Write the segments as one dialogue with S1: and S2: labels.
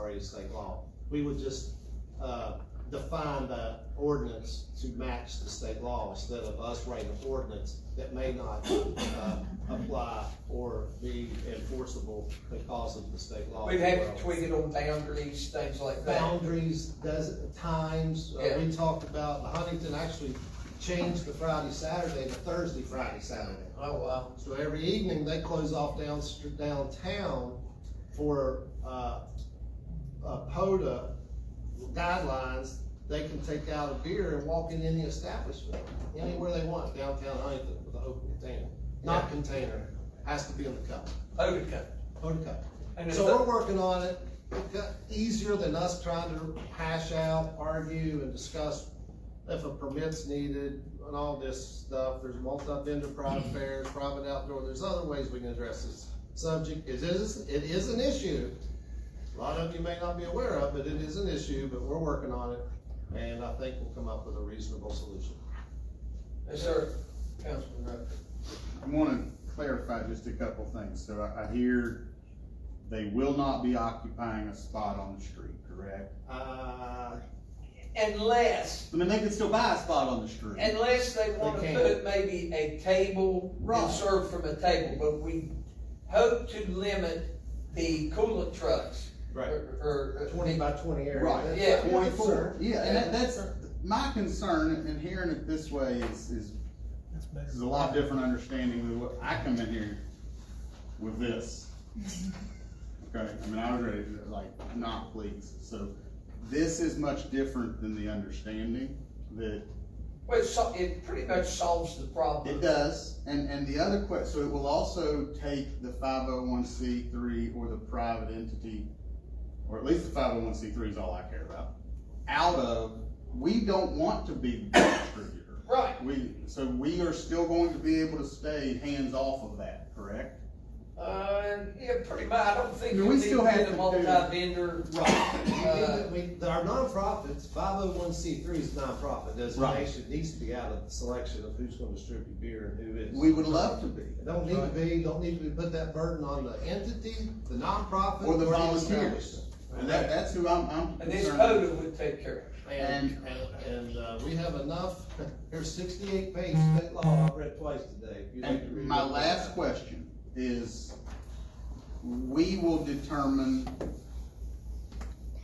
S1: Virginia state law. We would just, uh, define the ordinance to match the state law instead of us writing an ordinance that may not, uh, apply or be enforceable because of the state law.
S2: We've had to tweak it on boundaries, things like that.
S1: boundaries, does, times, uh, we talked about, Huntington actually changed the Friday, Saturday to Thursday, Friday, Saturday.
S2: Oh, wow.
S1: So every evening, they close off down, downtown for, uh, uh, POTA guidelines. They can take out a beer and walk in any establishment, anywhere they want, downtown Huntington with an open container. Not container, has to be in the cup,
S2: Otica.
S1: POTA cup.
S2: And it's,
S1: So we're working on it, It got easier than us trying to hash out, argue and discuss if a permit's needed and all this stuff, there's multi-vendor private fairs, private outdoor, there's other ways we can address this subject, it is, it is an issue. A lot of you may not be aware of, but it is an issue, but we're working on it, and I think we'll come up with a reasonable solution.
S2: yes, sir, Councilman Rucker.
S3: I wanna clarify just a couple things, so I, I hear they will not be occupying a spot on the street, correct?
S1: Uh,
S2: Unless,
S3: I mean, they could still buy a spot on the street.
S2: unless they wanna
S1: They can.
S2: put maybe a table and
S3: Right.
S2: serve from a table, but we hope to limit the coolant trucks. Or, uh, or-
S1: Twenty by twenty area.
S3: Right,
S2: Yeah.
S1: That's-
S3: twenty-four,
S1: that's-
S3: yeah, and that, that's, my concern in hearing it this way is, is, is a lot different understanding than what I come in here with this. Okay, I mean, I was ready, to, like, not please, so this is much different than the understanding that
S2: well, it so, it pretty much solves the problem.
S3: It does, and, and the other que, so it will also take the five oh one C three or the private entity, or at least the five oh one C three is all I care about, out of, we don't want to be the distributor.
S2: Right,
S3: We, so we are still going to be able to stay hands off of that, correct?
S2: uh, yeah, pretty much, I don't think.
S3: I mean,
S2: you
S3: we
S2: need
S3: still
S2: to
S3: have
S2: get a
S3: to do-
S2: Multi-vendor,
S1: Right. We, we- Uh, our nonprofits, five oh one C three is nonprofit designation, needs to be out of the selection of who's gonna distribute beer and who is.
S3: We would love to be,
S1: It Don't need to be, don't need to put that burden on the entity, the nonprofit.
S3: or the
S1: establishment.
S3: volunteers, and that, that's who I'm, I'm
S2: Uh, and this
S3: concerned.
S2: coda
S3: with.
S2: would take care of it.
S1: And, and, and, uh, we have enough, there's sixty-eight pages of state law, I've read twice today. If you'd like to
S3: And
S1: read
S3: my
S1: it.
S3: last question is, we will determine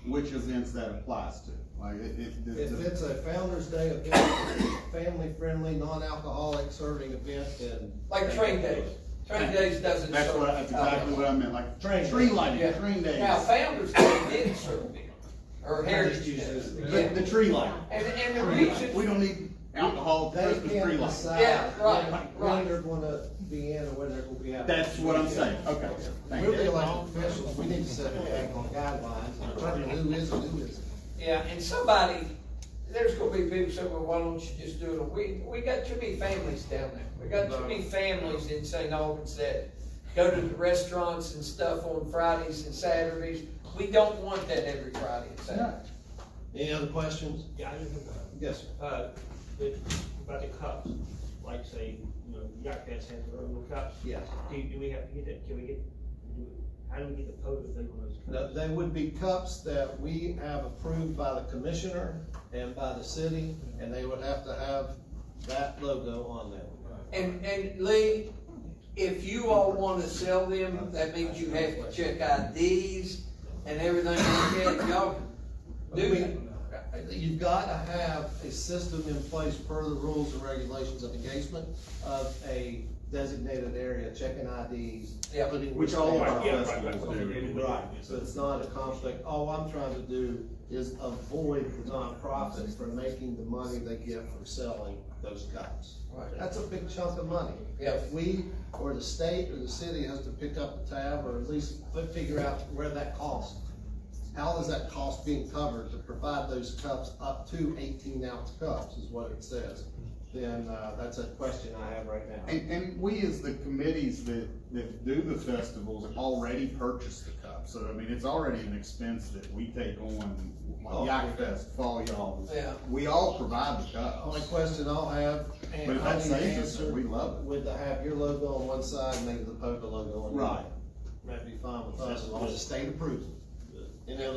S3: which events that applies to, like, it, it, the-
S1: If
S3: the-
S1: it's a Founder's Day event, family-friendly, non-alcoholic serving event, then.
S2: Like train days, train days doesn't.
S3: that's
S2: serve
S3: what, that's exactly what I meant, like,
S1: Train days.
S3: tree lighting,
S2: Yeah.
S3: train days.
S2: Now, Founder's Day did serve beer,
S1: I
S2: or
S1: just
S2: Heritage
S1: use
S2: Day.
S1: those.
S3: The, the tree lighting,
S2: And, and the
S3: Tree lighting. we
S2: reason,
S3: don't need alcohol,
S1: They
S3: Christmas tree
S1: can't
S3: lighting.
S1: decide
S2: Yeah, right,
S1: when
S2: right.
S1: they're gonna be in or when they're gonna be out.
S3: That's what I'm saying, okay, thank
S1: We're
S3: you.
S1: elected officials, we need to set a back on guidelines, and determine who is and who isn't.
S2: yeah, and somebody, there's gonna be people saying, well, why don't you just do it, a we, we got too many families down there. We got too many families in St. Albans that go to the restaurants and stuff on Fridays and Saturdays. We don't want that every Friday and Saturday.
S3: Yeah.
S1: Any other questions?
S4: Yeah, I just, uh,
S1: Yes, sir.
S4: uh, it- about the cups, like say, you know, yacht guys have their own little cups.
S1: Yeah.
S4: Do, do we have to get that, can we get, do, we- how do we get the photo thing on those
S1: No,
S4: cups?
S1: They would be cups that we have approved by the commissioner and by the city, and they would have to have that logo on them.
S2: And, and Lee, if you all wanna sell them, that means you have to check IDs and everything like that, y'all do that.
S1: You've got to have a system in place per the rules and regulations of engagement of a designated area, checking IDs.
S2: Yeah.
S1: putting-
S3: Which all of our
S4: Right, yeah, right,
S3: festivals
S4: right.
S3: do.
S1: Right, so it's not a conflict. All I'm trying to do is avoid the nonprofits from making the money they get from selling those cups.
S2: Right.
S1: That's a big chunk of money.
S2: Yeah.
S1: If we, or the state, or the city has to pick up the tab, or at least fi- figure out where that cost. How is that cost being covered to provide those cups up to eighteen ounce cups is what it says. Then, uh, that's a question I have right now.
S3: And, and we as the committees that, that do the festivals already purchase the cup, so I mean, it's already an expense that we take on,
S1: Oh.
S3: like Yak Fest, Fall Y'all.
S2: Yeah.
S3: We all provide the
S1: Only
S3: cups,
S1: question I'll have,
S3: but
S1: and
S3: if
S1: I
S3: that
S1: need to
S3: saves us,
S1: answer.
S3: we love it.
S1: Would to have your logo on one side and maybe the POCA logo on the other.
S3: Right.
S1: That'd be fine with us, as long as the state approves it. Any other